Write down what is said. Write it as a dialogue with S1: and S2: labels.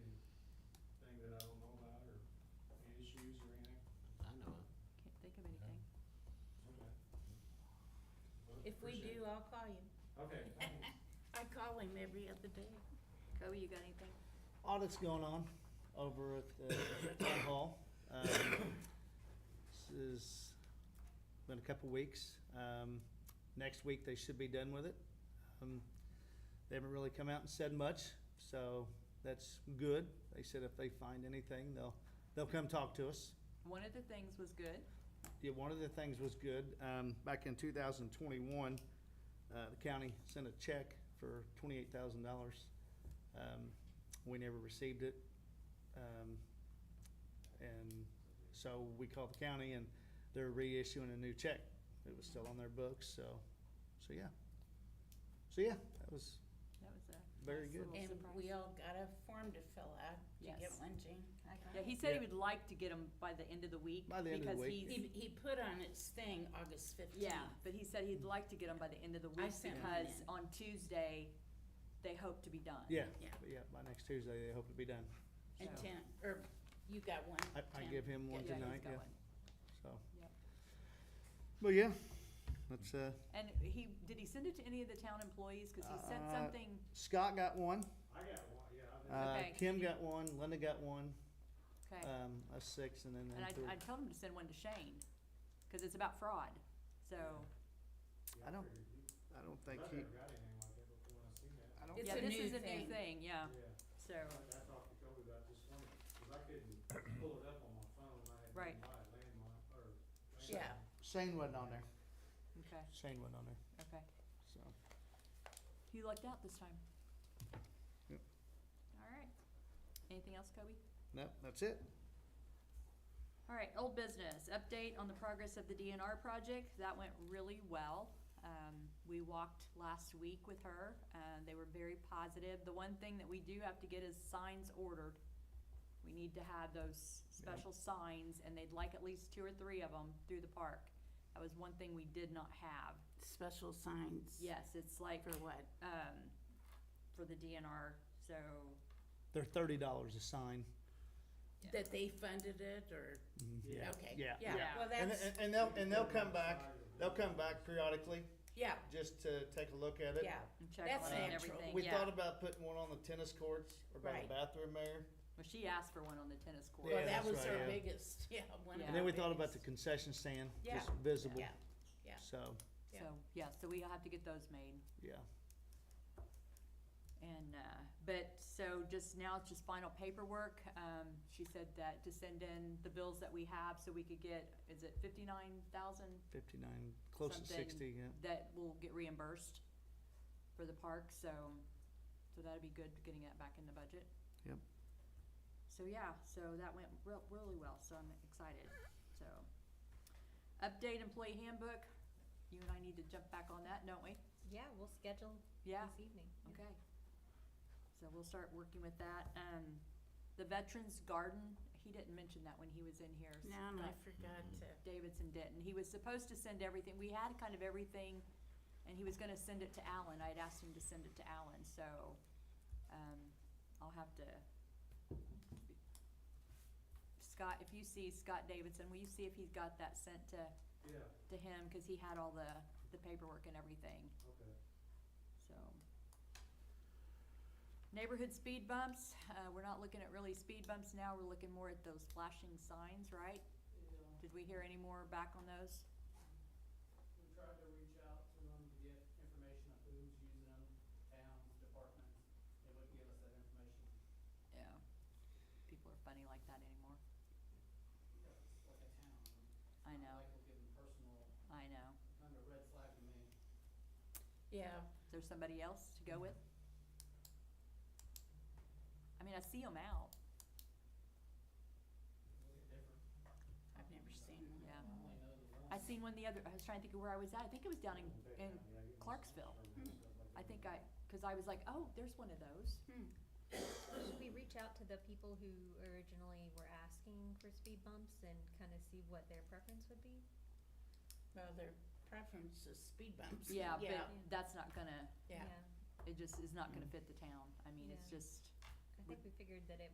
S1: If we do, I'll call you.
S2: Okay, thanks.
S1: I call him every other day.
S3: Kobe, you got anything?
S4: audit's going on over at the town hall. Um, This is, been a couple weeks. Um, Next week, they should be done with it. Um, They haven't really come out and said much, so that's good. They said if they find anything, they'll, they'll come talk to us.
S5: One of the things was good.
S4: Yeah, one of the things was good, um, back in two thousand twenty-one, uh, the county sent a check for twenty-eight thousand dollars. Um, we never received it. Um, and so we called the county and they're reissuing a new check. It was still on their books, so, so yeah. So yeah, that was,
S5: That was a
S4: Very
S5: nice
S4: good.
S5: little
S1: And
S5: surprise.
S1: we all got a form to fill out. Did you get
S5: Yes.
S1: one, Jean?
S5: Yeah, he said he
S4: Yeah.
S5: would like to get them by the end of the week.
S4: By the end of the
S5: because
S4: week.
S5: he's-
S1: He, he put on its thing August fifteenth.
S5: Yeah, but he said he'd like to get them by the end of the
S1: I
S5: week
S1: sent mine
S5: because
S1: in.
S5: on Tuesday, they hope to be done.
S4: yeah,
S1: Yeah.
S4: yeah, by next Tuesday, they hope to be done.
S1: And
S5: So-
S1: Tim, or you got one?
S4: I, I
S1: Tim?
S4: give him one
S5: Yeah, he's
S4: tonight,
S5: got
S4: yeah,
S5: one.
S4: so.
S5: Yep.
S4: But yeah, that's, uh,
S5: And he, did he send it to any of the town employees? Because he sent
S4: Uh,
S5: something,
S4: Scott got one.
S2: I got one, yeah. I've been-
S4: Uh,
S5: Okay.
S4: Kim got one, Linda got one,
S5: okay.
S4: um, us six, and then
S5: And
S4: them
S5: I,
S4: three.
S5: I told him to send one to Shane because it's about fraud. So,
S2: yeah,
S4: Uh, I don't
S2: figured you-
S4: I don't
S2: I've
S4: think he,
S2: never got anything like that before, I've seen that.
S4: I don't,
S1: It's
S5: yeah,
S1: a
S5: this
S1: new
S5: is a new
S1: thing.
S5: thing, yeah.
S2: Yeah.
S5: So,
S2: I talked to Kobe about this one, because I couldn't pull it up on my phone, I had to
S5: Right.
S2: buy a landmark, or.
S1: Yeah.
S2: landline.
S4: Shane wasn't on there.
S5: okay,
S4: Shane wasn't on there,
S5: okay.
S4: so.
S5: You lucked out this time.
S4: Yep.
S5: All right. Anything else, Kobe?
S4: Nope, that's it.
S5: All right, old business, update on the progress of the DNR project. That went really well. Um, we walked last week with her, and they were very positive. The one thing that we do have to get is signs ordered. We need to have those special signs, and they'd like at least two or three of them through the park. That was one thing we did not have.
S1: Special signs.
S5: Yes, it's like,
S1: For what?
S5: um, for the DNR, so,
S4: They're thirty dollars a sign.
S1: That they funded it or,
S2: Yeah.
S1: okay.
S4: Mm-hmm. Yeah,
S5: yeah.
S1: Yeah, well,
S4: And,
S1: that's,
S4: and and they'll, and they'll come back, they'll come back periodically
S1: yeah,
S4: just to take a look at it.
S1: yeah.
S5: and check
S1: That's
S5: on it and
S1: natural.
S5: everything,
S4: We thought
S5: yeah.
S4: about putting one on the tennis courts or by the
S1: Right.
S4: bathroom there.
S5: Well, she asked for one on the tennis court.
S4: Yeah,
S1: Well, that
S4: that's
S1: was
S4: right,
S1: our
S4: yeah.
S1: biggest, yeah, one of
S5: Yeah.
S4: And then we
S1: our
S4: thought about the
S1: biggest.
S4: concession stand,
S1: Yeah.
S4: just visible,
S1: Yeah, yeah.
S4: so,
S1: Yeah.
S5: So, yeah, so we have to get those made.
S4: yeah.
S5: And, uh, but, so just now it's just final paperwork. Um, she said that to send in the bills that we have so we could get, is it fifty-nine thousand?
S4: Fifty-nine, close to sixty, yeah.
S5: That will get reimbursed for the park, so, so that'd be good, getting that back in the budget.
S4: Yep.
S5: So, yeah, so that went real, really well, so I'm excited, so. Update employee handbook. You and I need to jump back on that, don't we?
S3: Yeah, we'll schedule
S5: Yeah.
S3: this evening.
S5: Okay. So we'll start working with that. Um, the Veterans Garden, he didn't mention that when he was in here.
S1: No, and I
S5: Scott
S1: forgot to,
S5: Davidson didn't. He was supposed to send everything. We had kind of everything, and he was gonna send it to Alan. I had asked him to send it to Alan, so, um, I'll have to. Scott, if you see Scott Davidson, will you see if he's got that sent to,
S2: Yeah,
S5: to him? Cause he had all the, the paperwork and everything.
S2: okay.
S5: So. Neighborhood speed bumps, uh, we're not looking at really speed bumps now, we're looking more at those flashing signs, right? Did we hear any more back on those?
S6: We tried to reach out to them to get information of who's using them, towns, departments, they wouldn't give us that information.
S5: Yeah. People are funny like that anymore.
S6: Yeah, it's Like a town.
S5: I know,
S6: Like will give them personal,
S5: I know.
S6: kind of red flag to me.
S1: yeah,
S5: Is there somebody else to go with? I mean, I see them out,
S6: It's different.
S1: I've never seen one.
S5: yeah.
S6: I only know the one.
S5: I seen one the other, I was trying to think of where I was at, I think it was down in,
S2: Okay,
S5: in,
S2: yeah, I get my
S5: Clarksville.
S2: stuff from stuff like
S5: I
S2: that.
S5: think I, cause I was like, oh, there's one of those.
S1: Hmm.
S3: Should we reach out to the people who originally were asking for speed bumps and kind of see what their preference would be?
S1: Well, their preference is speed bumps.
S5: Yeah, Mm.
S1: Yeah,
S5: but that's not gonna,
S1: yeah.
S5: it just is not gonna fit the town. I mean, it's
S3: Yeah.
S5: just,
S3: I think we figured that it